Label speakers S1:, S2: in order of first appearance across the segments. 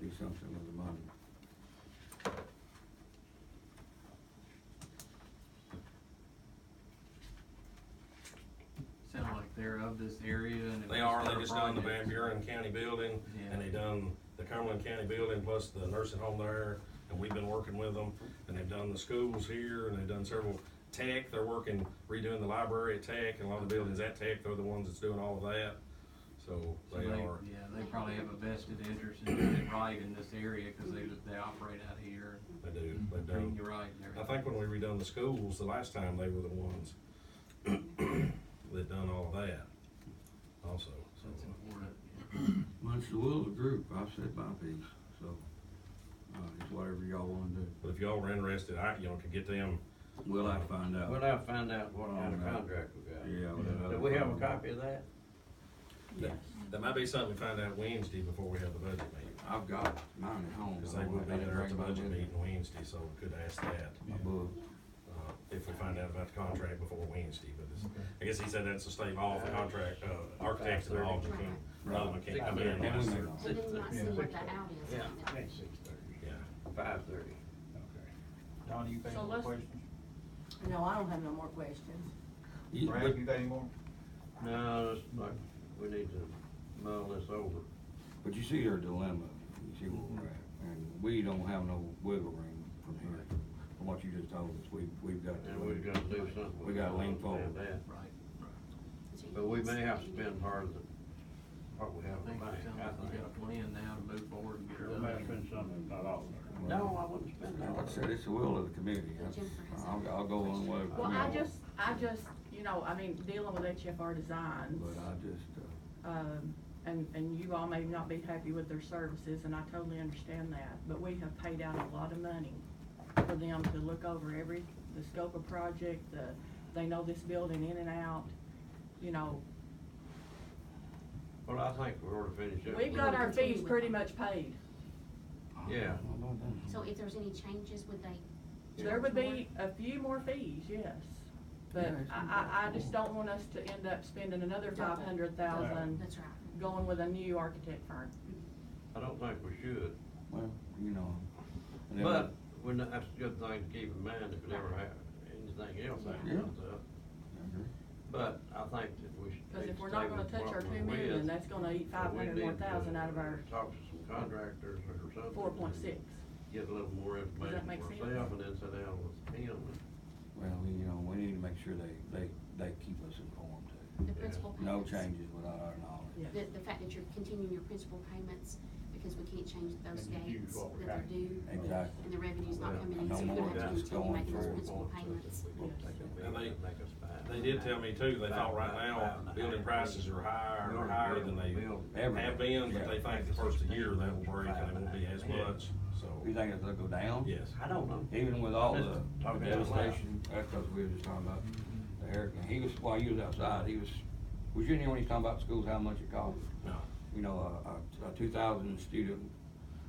S1: do something with the money.
S2: Sound like they're of this area and. it was
S3: They are,
S2: their
S3: they just done the Van
S2: project.
S3: Buren County building, and they done the Cumberland County building, plus the nursing home there, and we've been working with them, and they've done the schools here, and they've done several tech, they're working, redoing the library at tech, and a lot of the buildings at tech, they're the ones that's doing all of that, so
S2: So
S3: they are.
S2: Yeah, they probably have a vested interest in doing it right in this area, cause they, they operate out here.
S3: They do, they've
S2: Treating
S3: done,
S2: you right and
S3: I
S2: everything.
S3: think when we redone the schools, the last time, they were the ones that done all of that, also, so.
S2: That's important.
S1: Well, it's the will of the group, I've said my piece, so, uh, it's whatever y'all wanna do.
S3: But if y'all were interested, I, you know, could get them,
S1: Will I find out?
S4: Well, I'll find out what
S1: Oh,
S4: kind of
S1: no.
S4: contract we
S1: Yeah.
S4: got.
S1: well,
S4: Do we have a copy of that?
S3: that might be something we find out Wednesday before we have the budget meeting.
S1: I've got mine at home.
S3: Because they will be there at the budget meeting Wednesday, so we could ask that,
S1: My book.
S3: uh, if we find out about the contract before Wednesday, but it's, I guess he said that's a state law, the contract, uh, architects and all, we can, all we can come in and ask their-
S4: Six
S5: And then you might see
S4: thirty.
S5: what the out is.
S4: Yeah.
S5: on it.
S3: Yeah,
S4: Five thirty.
S6: Don, you got
S7: So
S6: any more
S7: let's-
S6: questions?
S7: No, I don't have no more questions.
S1: You-
S6: Brad, you got any more?
S4: No, it's like, we need to mull this over.
S1: But you see their dilemma, you see where we're at, and we don't have no wiggle room from here, from what you just told us, we, we've got to.
S4: And we've got to do something.
S1: We gotta lean forward.
S4: with that.
S2: Right, right.
S5: So you
S4: But we
S5: can
S4: may have to
S5: see
S4: spend part of the, part we
S2: I
S4: have in
S2: think
S4: the bank,
S2: it sounds
S4: I
S2: like you
S4: think.
S2: got a plan now to move forward and get
S4: We
S2: it
S4: may
S2: done.
S4: spend something, not all of it. No, I wouldn't spend all
S1: Like I
S4: of
S1: said,
S4: it.
S1: it's the will of the committee,
S5: But Jennifer has
S1: I'll,
S5: a
S1: I'll go on whatever.
S5: question.
S7: Well, I
S1: No,
S7: just, I just, you know, I mean, dealing with HFR Designs,
S1: But I just, uh,
S7: um, and, and you all may not be happy with their services, and I totally understand that, but we have paid out a lot of money for them to look over every, the scope of project, the, they know this building in and out, you know,
S4: Well, I think we ought to finish up.
S7: we've got our fees pretty much paid.
S4: Yeah.
S5: So if there's any changes, would they?
S7: There would be a few more fees, yes, but
S1: Yeah, it's
S7: I, I, I just don't want us to end up spending another five hundred thousand
S5: That's right.
S7: going with a new architect firm.
S4: I don't think we should,
S1: well, you know. and then-
S4: but we're not, that's a good thing to keep in mind if it ever happens, anything else that
S1: Yeah.
S4: comes up.
S1: I agree.
S4: But I think that we should.
S7: Cause
S4: need
S7: if
S4: to
S7: we're not
S4: stay
S7: gonna
S4: with
S7: touch
S4: what
S7: our
S4: we're
S7: two
S4: with,
S7: million, that's gonna eat
S4: but
S7: five
S4: we
S7: hundred more
S4: need to
S7: thousand out of our
S4: Talk to some contractors or something.
S7: four point six.
S4: Get a little more information
S7: make sense?
S4: ourselves and then sit down with him.
S1: Well, you know, we need to make sure they, they, they keep us informed too.
S5: The principal
S1: No
S5: payments?
S1: changes without our knowledge.
S7: Yeah.
S5: The, the fact that you're continuing your principal payments because we can't change those
S6: And you use
S5: dates
S6: what we
S5: that
S6: got.
S5: are due
S1: Exactly.
S5: and the revenue's not
S4: Yeah,
S5: coming in,
S1: no
S5: so you're
S1: more
S5: gonna have to
S1: debts
S5: continue
S1: going
S5: making those
S1: forward.
S5: principal payments.
S3: And they- they did tell me too, they thought right now, building prices are higher, are higher than they
S1: Every-
S3: have been, but they think the first of the year that will break, and it won't be as much,
S1: You
S3: so,
S1: think it's gonna go down?
S3: yes.
S4: I don't know.
S1: Even with all the
S4: Just talking out loud.
S1: devastation, that's because we were just talking about the hurricane, he was, while you was outside, he was, was you in here when he was talking about schools, how much it costs?
S3: No,
S1: You know, a, a, a two thousand student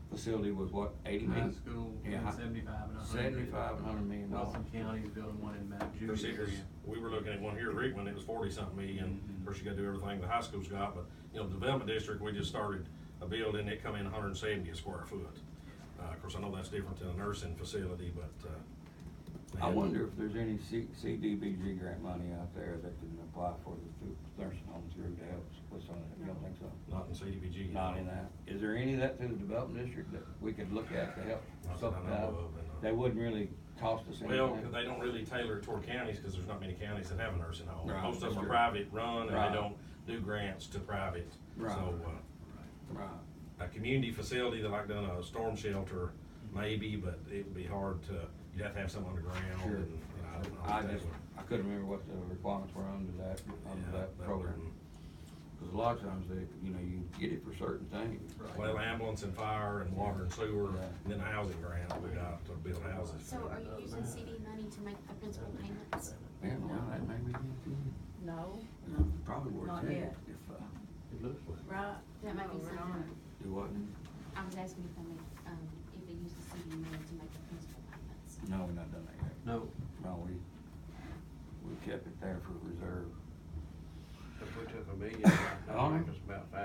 S1: facility was what, eighty
S2: High
S1: million?
S2: school,
S1: Yeah, hi-
S2: seventy-five and a hundred.
S1: Seventy-five and a hundred million dollars.
S2: Wilson County's building one in Mount
S3: For
S2: Julius.
S3: seniors, we were looking at one here at Reedman, it was forty-something million, of course, you gotta do everything the high school's got, but, you know, the development district, we just started a building, it come in hundred and seventy a square foot. Uh, of course, I know that's different than a nursing facility, but, uh. they
S1: I
S3: had-
S1: wonder if there's any C, CDBG grant money out there that can apply for the thu- nursing homes through to help with some of that, you don't think so?
S3: Not in CDBG.
S1: Not in that. Is there any of that through the development district that we could look at to help?
S3: Not that I
S1: something
S3: know
S1: out?
S3: of, and, uh,
S1: They wouldn't really cost us anything?
S3: Well, they don't really tailor it toward counties, cause there's not many counties that have a nursing home.
S1: Right,
S3: Most of them
S1: that's
S3: are
S1: true.
S3: private run, and
S1: Right.
S3: they don't do grants to private, so,
S1: Right.
S3: uh,
S1: Right.
S3: a community facility that like done a storm shelter, maybe, but it would be hard to, you'd have to have some underground
S1: Sure.
S3: and, and I don't know.
S1: I
S3: if that
S1: just,
S3: would-
S1: I couldn't remember what the requirements were under that,
S3: yeah,
S1: under that
S3: that
S1: program.
S3: wouldn't-
S1: Cause a lot of times they, you know, you get it for certain things.
S3: Well, ambulance and fire and water and sewer,
S1: Yeah.
S3: and then housing grant, we got to build houses.
S5: So are you using CD money to make the principal payments?
S1: Yeah, well, that may be,
S7: No,
S1: it's probably worth
S7: Not
S1: it
S7: yet.
S1: if, uh,
S4: It looks like.
S7: right?
S5: That might be
S7: No, we're
S5: something.
S7: not.
S1: do what?
S5: I was asking if they make, um, if they use the CD money to make the principal payments.
S1: No, we're not done that yet.
S4: No,
S1: No, we, we kept it there for reserve.
S4: if we took a million, that'd
S1: Alright.
S4: make us about